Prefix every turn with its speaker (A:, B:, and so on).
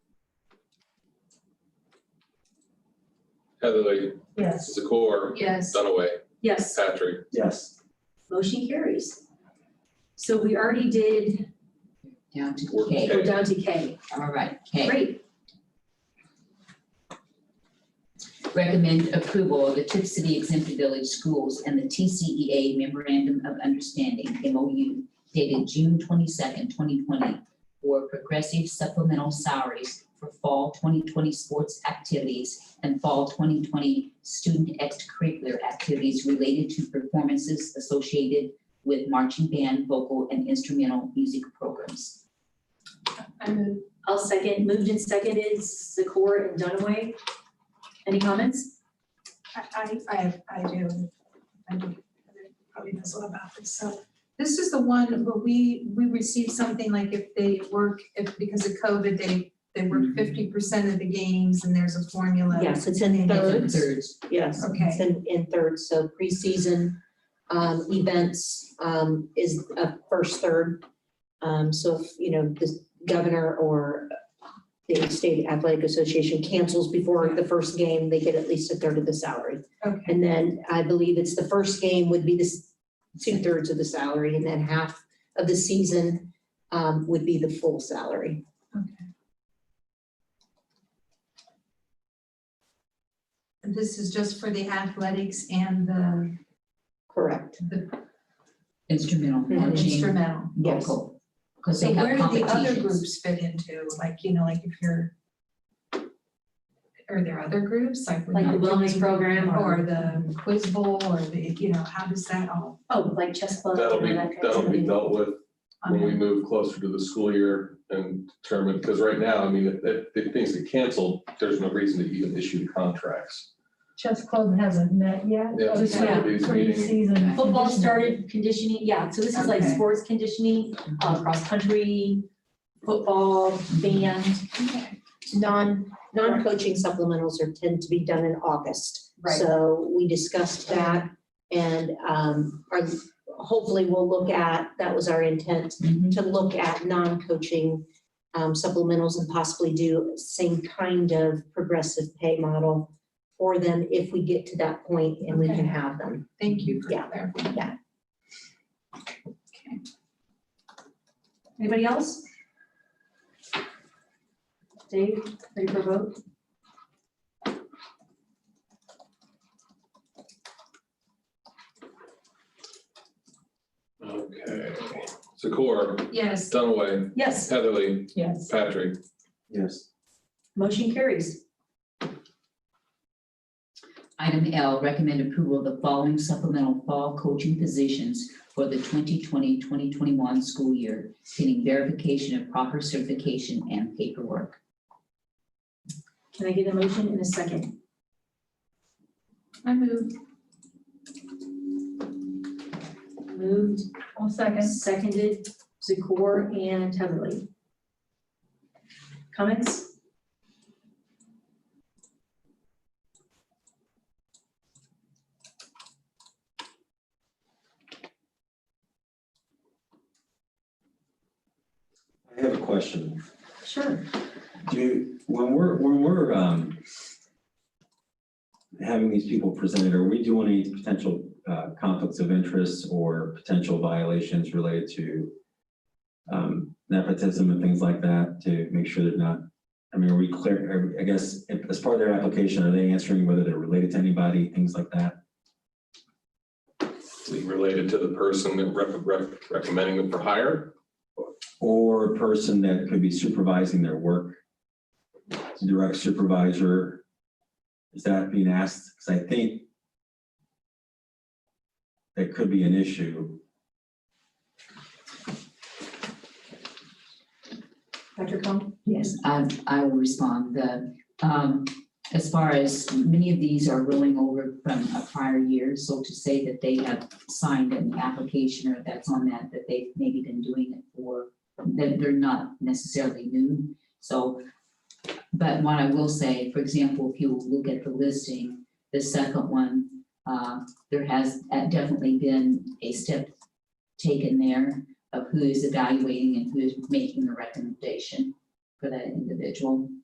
A: Heatherly,
B: Yes.
A: Zakor,
C: Yes.
A: Dunaway,
B: Yes,
A: Patrick.
D: Yes.
B: motion carries. So we already did,
C: Down to
A: Work.
C: K.
B: we're down to K.
C: All right, K.
B: Great,
C: Recommend approval of the Tip City Exempt Village Schools and the TCEA Memorandum of Understanding, MOU, dated June twenty-second, twenty twenty, for progressive supplemental salaries for fall twenty twenty sports activities and fall twenty twenty student extracurricular activities related to performances associated with marching band, vocal, and instrumental music programs.
B: I move. I'll second, moved and seconded, Zakor and Dunaway. Any comments?
E: I, I, I do, I do, probably knows a lot about this, so. This is the one where we, we received something like if they work, if, because of COVID, they, they work fifty percent of the games and there's a formula.
F: Yes, it's in
E: Thirds.
F: thirds,
C: Thirds.
F: yes, it's
E: Okay,
F: in, in thirds, so preseason, um, events, um, is a first third. Um, so if, you know, the governor or the state athletic association cancels before the first game, they get at least a third of the salary.
E: okay,
F: And then I believe it's the first game would be this two thirds of the salary and then half of the season, um, would be the full salary.
E: okay. And this is just for the athletics and the,
F: Correct.
E: the
C: Instrumental
E: and
C: marching.
E: instrumental.
F: Yes.
C: vocal, because
E: So
C: they
E: where
C: have
E: do the other
C: competitions.
E: groups fit into, like, you know, like if you're, are there other groups, like? we're
B: Like the
E: not
B: wellness
E: doing-
B: program or-
E: Or the quiz bowl, or the, you know, how does that all?
B: Oh, like chess club.
A: That'll be,
B: and that kind of
A: that'll be
B: thing.
A: dealt with when we
E: um,
A: move closer to the school year and determine, because right now, I mean, if, if- if things get canceled, there's no reason to even issue the contracts.
G: chess club hasn't met yet.
A: Yeah,
G: Just
A: one of
G: had
A: these meetings.
G: preseason.
B: Football started conditioning, yeah, so this is like
E: Okay.
B: sports conditioning, uh, cross-country, football, band.
E: okay,
F: Non, non-coaching supplementals are tend to be done in August.
B: Right.
F: So we discussed that and um, our- hopefully we'll look at, that was our intent,
C: Mhm.
F: to look at non-coaching um, supplementals and possibly do same kind of progressive pay model for them if we get to that point and we
E: Okay.
F: can have them.
E: Thank you for
F: Yeah.
E: clarifying.
F: Yeah.
E: Okay.
B: Anybody else? Dave, ready for a vote?
A: Okay. Zakor,
E: Yes,
A: Dunaway,
B: Yes.
A: Heatherly,
G: Yes.
A: Patrick.
D: Yes.
B: Motion carries.
C: Item L, recommend approval of the following supplemental fall coaching positions for the 2020, 2021 school year, pending verification of proper certification and paperwork.
B: Can I get a motion in a second?
E: I move.
B: Moved,
G: I'll second.
B: seconded, Zakor and Heatherly. Comments?
D: I have a question.
B: Sure.
D: Do, you- when we're, when we're, um, having these people presented, are we doing any potential, uh, conflicts of interest or potential violations related to, um, nepotism and things like that to make sure they're not, I mean, are we clear, are- I guess, if- as part of their application, are they answering whether they're related to anybody, things like that?
A: Related to the person that rec- rec- recommending them for hire.
D: Or a person that could be supervising their work? Direct supervisor? Is that being asked? Because I think that could be an issue.
B: Dr. Cohen?
C: Yes, I, Um, I will respond. The, um, as far as many of these are rolling over from a prior year, so to say that they have signed an application or that's on that, that they've maybe been doing it for, that they're not necessarily new. So, but what I will say, for example, if you look at the listing, the second one, uh, there has uh, definitely been a step taken there of who is evaluating and who is making the recommendation for that individual.